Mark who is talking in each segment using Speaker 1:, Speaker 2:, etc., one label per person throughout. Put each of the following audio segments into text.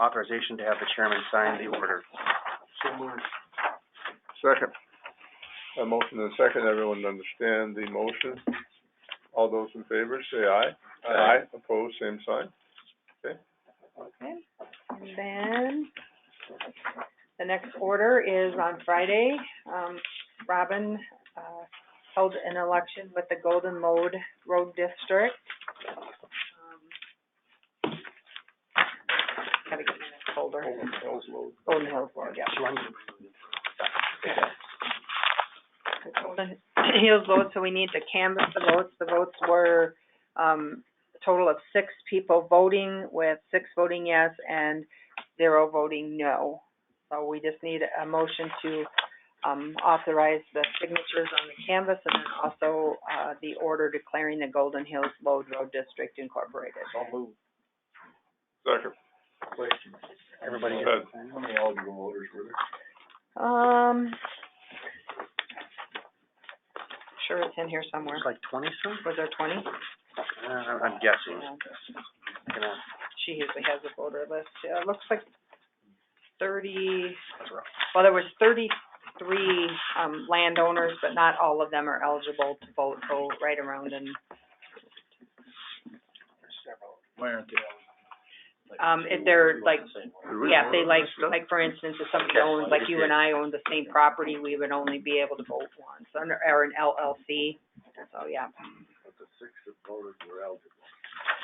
Speaker 1: authorization to have the chairman sign the order.
Speaker 2: So moved.
Speaker 3: Second. A motion and a second, everyone understand the motion? All those in favor, say aye. Aye. Opposed, same sign?
Speaker 4: Okay, and then, the next order is on Friday, um, Robin, uh, held an election with the Golden Road Road District. Um, Gotta get my next folder.
Speaker 2: Golden Hills Road.
Speaker 4: Golden Hills Road, yeah.
Speaker 2: So I'm gonna bring it in.
Speaker 4: Golden Hills votes, so we need to canvass the votes. The votes were, um, a total of six people voting, with six voting yes and zero voting no. So we just need a motion to, um, authorize the signatures on the canvas and then also, uh, the order declaring the Golden Hills Lode Road District Incorporated.
Speaker 2: So moved.
Speaker 3: Second.
Speaker 2: Question.
Speaker 1: Everybody
Speaker 3: Good.
Speaker 1: gets to sign?
Speaker 2: How many eligible voters were there?
Speaker 4: Um, sure it's in here somewhere.
Speaker 1: There's like twenty some?
Speaker 4: Was there twenty?
Speaker 1: Uh, I'm guessing. You know,
Speaker 4: she usually has a voter list, yeah, it looks like thirty,
Speaker 1: that's rough.
Speaker 4: well, there was thirty-three, um, landowners, but not all of them are eligible to vote, so right around and,
Speaker 2: Why aren't they eligible?
Speaker 4: um, if they're like, yeah, if they like, like, for instance, if somebody owns, like you and I own the same property, we would only be able to vote once, under, or an LLC, so, yeah. But the six that voted were eligible.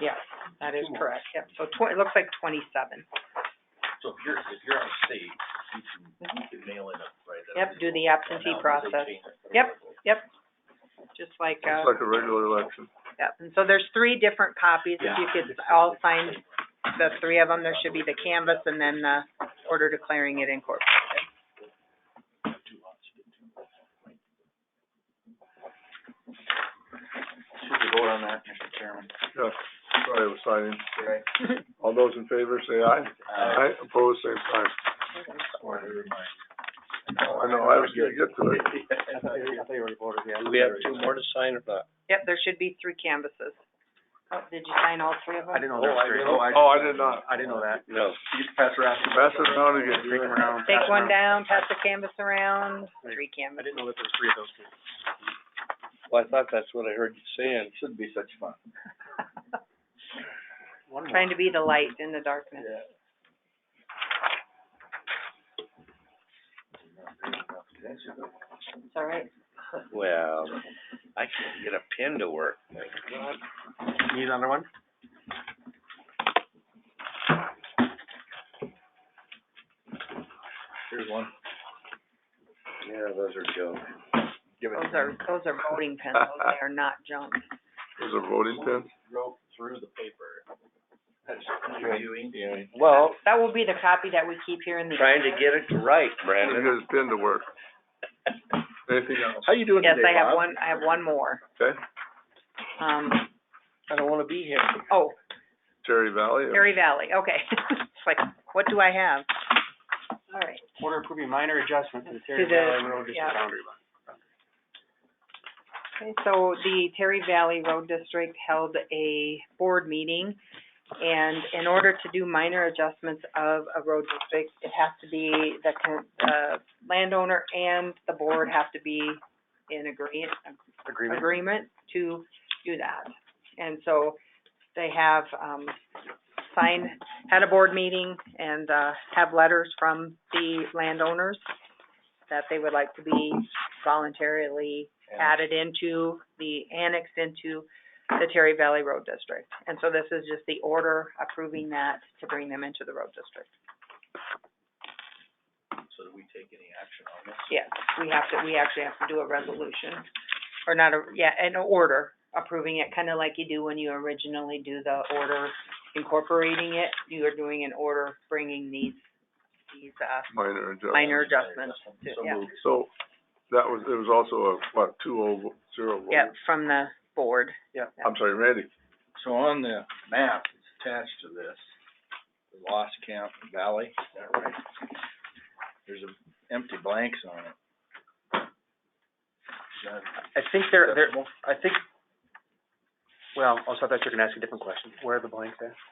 Speaker 4: Yeah, that is correct, yep, so twen- it looks like twenty-seven,
Speaker 5: So if you're, if you're out of state, you can, you can mail in a, right? that's
Speaker 4: yep, do the
Speaker 5: legal.
Speaker 4: absentee
Speaker 5: Now, they
Speaker 4: process.
Speaker 5: change it.
Speaker 4: Yep. Yep, just like,
Speaker 3: It's
Speaker 4: uh,
Speaker 3: like a regular election.
Speaker 4: yep, and so there's three different copies, if you could all sign the three of them, there should be the canvas and then the order declaring it incorporated.
Speaker 2: Should we vote on that, Mr. Chairman?
Speaker 3: Yeah, sorry, I was signing.
Speaker 2: Right.
Speaker 3: All those in favor, say aye.
Speaker 5: Uh,
Speaker 3: Opposed, same sign.
Speaker 5: or never mind.
Speaker 3: Oh, I know, I was gonna get to it.
Speaker 1: I thought you I thought you already voted, yeah.
Speaker 5: Do we have two more to sign or not?
Speaker 4: Yep, there should be three canvases. Oh, did you sign all three of
Speaker 1: I
Speaker 4: them?
Speaker 1: didn't know there
Speaker 5: Oh, I
Speaker 1: were three.
Speaker 5: didn't-
Speaker 1: I-
Speaker 3: Oh, I did not.
Speaker 1: I didn't know that.
Speaker 5: No.
Speaker 2: You just pass around.
Speaker 3: Pass it around again.
Speaker 1: Take them around.
Speaker 4: Take one down, pass the canvas around, three
Speaker 1: I
Speaker 4: canvases.
Speaker 1: didn't know that there were three of those. people.
Speaker 5: Well, I thought that's what I heard you saying.
Speaker 2: Should be such fun.
Speaker 1: One more.
Speaker 4: Trying to be the light in the darkness. It's all right.
Speaker 5: Well, I can't get a pen to work. Thank God.
Speaker 1: Need another one?
Speaker 2: Here's one.
Speaker 5: Yeah, those are junk.
Speaker 2: Give it.
Speaker 4: Those are, those are voting pencils, they are not junk.
Speaker 3: Those are voting pins.
Speaker 5: Broke through the paper. That's reviewing.
Speaker 4: Well. That will be the copy that we keep here in the.
Speaker 5: Trying to get it to right,
Speaker 3: Get
Speaker 5: Brandon.
Speaker 3: his pin to work. Anything else?
Speaker 5: How you doing
Speaker 4: Yes,
Speaker 5: today,
Speaker 4: I have
Speaker 5: Bob?
Speaker 4: one, I have one more.
Speaker 3: Okay,
Speaker 4: Um,
Speaker 5: I don't wanna be here.
Speaker 4: oh,
Speaker 3: Terry Valley.
Speaker 4: Perry Valley, okay. It's like, what do I have? All right,
Speaker 1: Order approving minor adjustment to the Terry
Speaker 4: To the-
Speaker 1: Valley Road District
Speaker 4: yeah.
Speaker 1: boundary line.
Speaker 4: okay, so the Terry Valley Road District held a board meeting, and in order to do minor adjustments of a road district, it has to be, the, con- the landowner and the board have to be in agree-
Speaker 1: Agreement?
Speaker 4: agreement to do that. And so they have, um, signed, had a board meeting and, uh, have letters from the landowners that they would like to be voluntarily added into the, annexed into the Terry Valley Road District. And so this is just the order approving that to bring them into the road district.
Speaker 5: So do we take any action on this?
Speaker 4: Yes, we have to, we actually have to do a resolution, or not a, yeah, an order approving it, kinda like you do when you originally do the order incorporating it. You are doing an order bringing these, these, uh,
Speaker 3: Minor adjustment.
Speaker 4: minor adjustments to, yeah,
Speaker 3: So, that was, it was also a, what, two oh zero vote?
Speaker 4: yeah, from the board.
Speaker 3: I'm sorry, Randy.
Speaker 2: So on the map that's attached to this, the Lost Camp Valley, is that right? There's a empty blanks on it. Is that-
Speaker 1: I think they're, they're, I think, well, also I thought you were gonna ask a different question. Where are the blanks at?